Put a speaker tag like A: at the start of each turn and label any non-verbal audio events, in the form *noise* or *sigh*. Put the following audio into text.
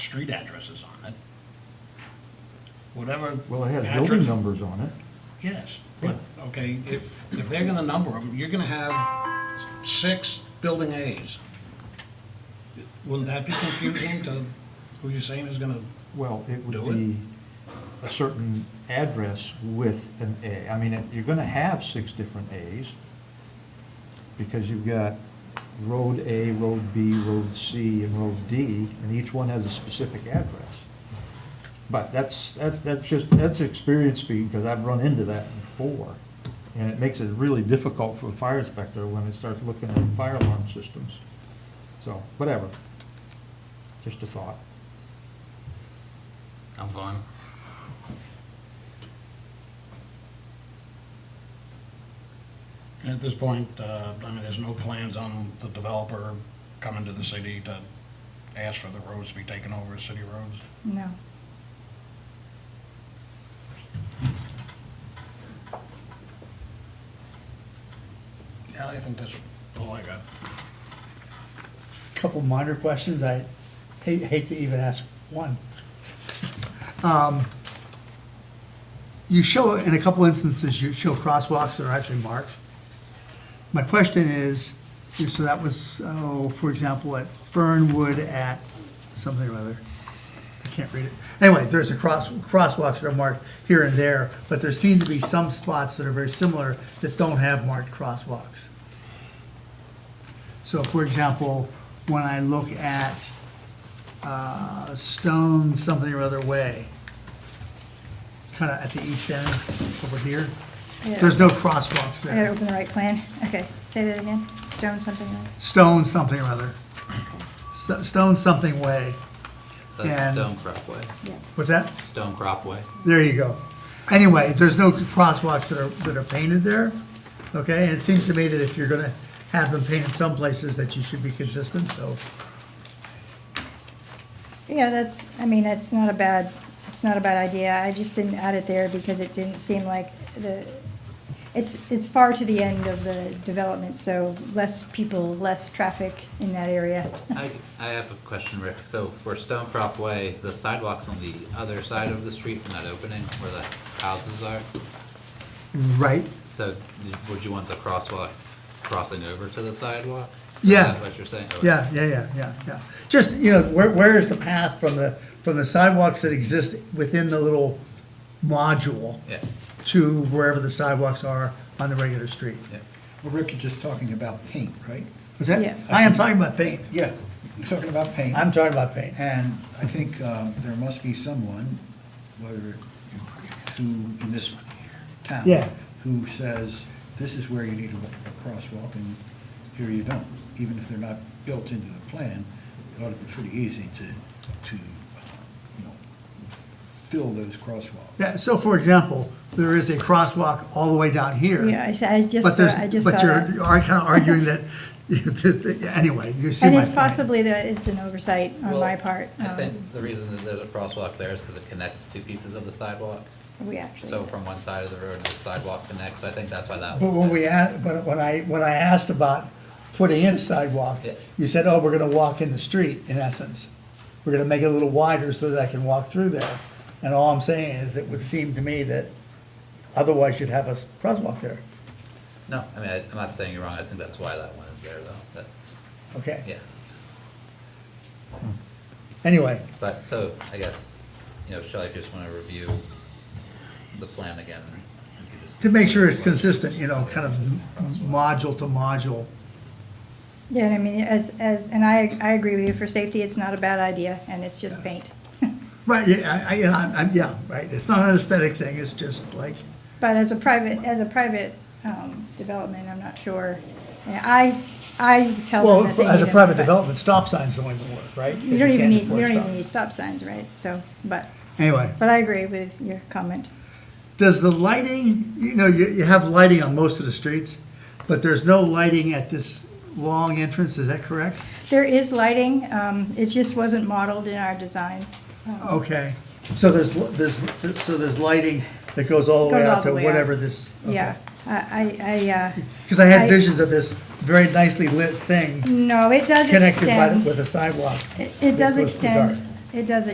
A: street addresses on it. Whatever.
B: Well, it has
A: address-
B: building numbers on it.
A: Yes, but, okay, if, if they're gonna number them, you're gonna have six building As. Wouldn't that be confusing to who you're saying is gonna,
B: Well, it would
A: Do it.
B: be a certain address with an A. I mean, you're gonna have six different As, because you've got Road A, Road B, Road C, and Road D, and each one has a specific address. But that's, that- that's just, that's experience speaking, because I've run into that before. And it makes it really difficult for a fire inspector when they start looking at fire alarm systems. So, whatever. Just a thought.
A: I'm fine. And at this point, uh, I mean, there's no plans on the developer coming to the city to ask for the roads to be taken over as city roads?
C: No.
A: Yeah, I think that's all I got.
D: couple minor questions, I hate, hate to even ask one. *laughs* Um, You show, in a couple instances, you show crosswalks that are actually marked. My question is, so that was, oh, for example, at Fernwood at something or other. I can't read it. Anyway, there's a cross, crosswalks that are marked here and there, but there seem to be some spots that are very similar that don't have marked crosswalks. So for example, when I look at uh, Stone something or other way, kind of at the east end over here, there's no crosswalks
C: I gotta
D: there.
C: open the right plan. Okay, say that again. Stone something else.
D: Stone something or other. Sto- Stone something way.
E: So that's
D: And-
E: Stone Crop Way.
C: Yeah.
D: What's that?
E: Stone Crop
D: *laughs*
E: Way.
D: There you go. Anyway, there's no crosswalks that are, that are painted there, okay? And it seems to me that if you're gonna have them painted some places, that you should be consistent, so.
C: Yeah, that's, I mean, it's not a bad, it's not a bad idea. I just didn't add it there because it didn't seem like the, it's, it's far to the end of the development, so less people, less traffic in that area.
E: I, I have a question, Rick. So for Stone Crop Way, the sidewalks on the other side of the street from that opening where the houses are,
D: Right,
E: so did- would you want the crosswalk crossing over to the sidewalk?
D: Yeah.
E: Is that what you're saying? Okay.
D: yeah, yeah, yeah, yeah, yeah. Just, you know, where, where is the path from the, from the sidewalks that exist within the little module
E: Yeah,
D: to wherever the sidewalks are on the regular street?
E: yeah.
F: Well, Rick, you're just talking about paint, right?
D: Was
C: Yeah.
D: that, I am talking about paint.
F: Yeah. You're talking about paint.
D: I'm talking about paint.
F: And I think um, there must be someone, whether, who, in this town.
D: Yeah.
F: Who says, this is where you need a a crosswalk and here you don't. Even if they're not built into the plan, it ought to be pretty easy to, to, you know, fill those crosswalks.
D: Yeah, so for example, there is a crosswalk all the way down here.
C: Yeah, I s- I just
D: But
C: saw,
D: there's,
C: I just saw
D: but
C: that.
D: you're, are kind of arguing that, *laughs* anyway, you see my
C: And
D: point.
C: it's possibly that it's an oversight on
E: Well,
C: my part.
E: I
C: Um,
E: think the reason that there's a crosswalk there is because it connects two pieces of the sidewalk.
C: We actually.
E: So from one side of the road, the sidewalk connects. I think that's why that
D: But
E: was.
D: when we asked, when, when I, when I asked about putting in a sidewalk,
E: Yeah.
D: you said, oh, we're gonna walk in the street, in essence. We're gonna make it a little wider so that I can walk through there. And all I'm saying is, it would seem to me that otherwise you'd have a s- crosswalk there,
E: No, I mean, I- I'm not saying you're wrong. I think that's why that one is there though.
D: okay?
E: But, yeah.
D: Anyway,
E: But, so, I guess, you know, Shelley, if you just wanna review the plan again. you could just-
D: to make sure it's consistent, you know, kind of module to module.
C: Yeah, and I mean, as, as, and I, I agree with you, for safety, it's not a bad idea, and it's just paint.
D: Right, yeah, I, I, and I'm- I'm, yeah, right, it's not an aesthetic thing, it's just like,
C: But as a private, as a private, um, development, I'm not sure. And I, I tell
D: well,
C: them that they
D: as a
C: need it,
D: private
C: but
D: development, stop signs don't even work, right? 'Cause
C: You don't even
D: can't
C: need, you
D: enforce
C: don't
D: stop.
C: even need stop signs, right? So, but,
D: Anyway.
C: but I agree with your comment.
D: Does the lighting, you know, you, you have lighting on most of the streets, but there's no lighting at this long entrance, is that correct?
C: There is lighting, um, it just wasn't modeled in our design.
D: Okay, so there's, there's, so there's lighting that goes all the way
C: Goes all
D: out
C: the
D: to
C: way out.
D: whatever this,
C: Yeah, I, I, I, uh,
D: Because I
C: I-
D: had visions of this very nicely lit thing
C: no, it does
D: connected by, the-
C: extend.
D: with a sidewalk.
C: It it does
D: goes to
C: extend,
D: dark.
C: It does, it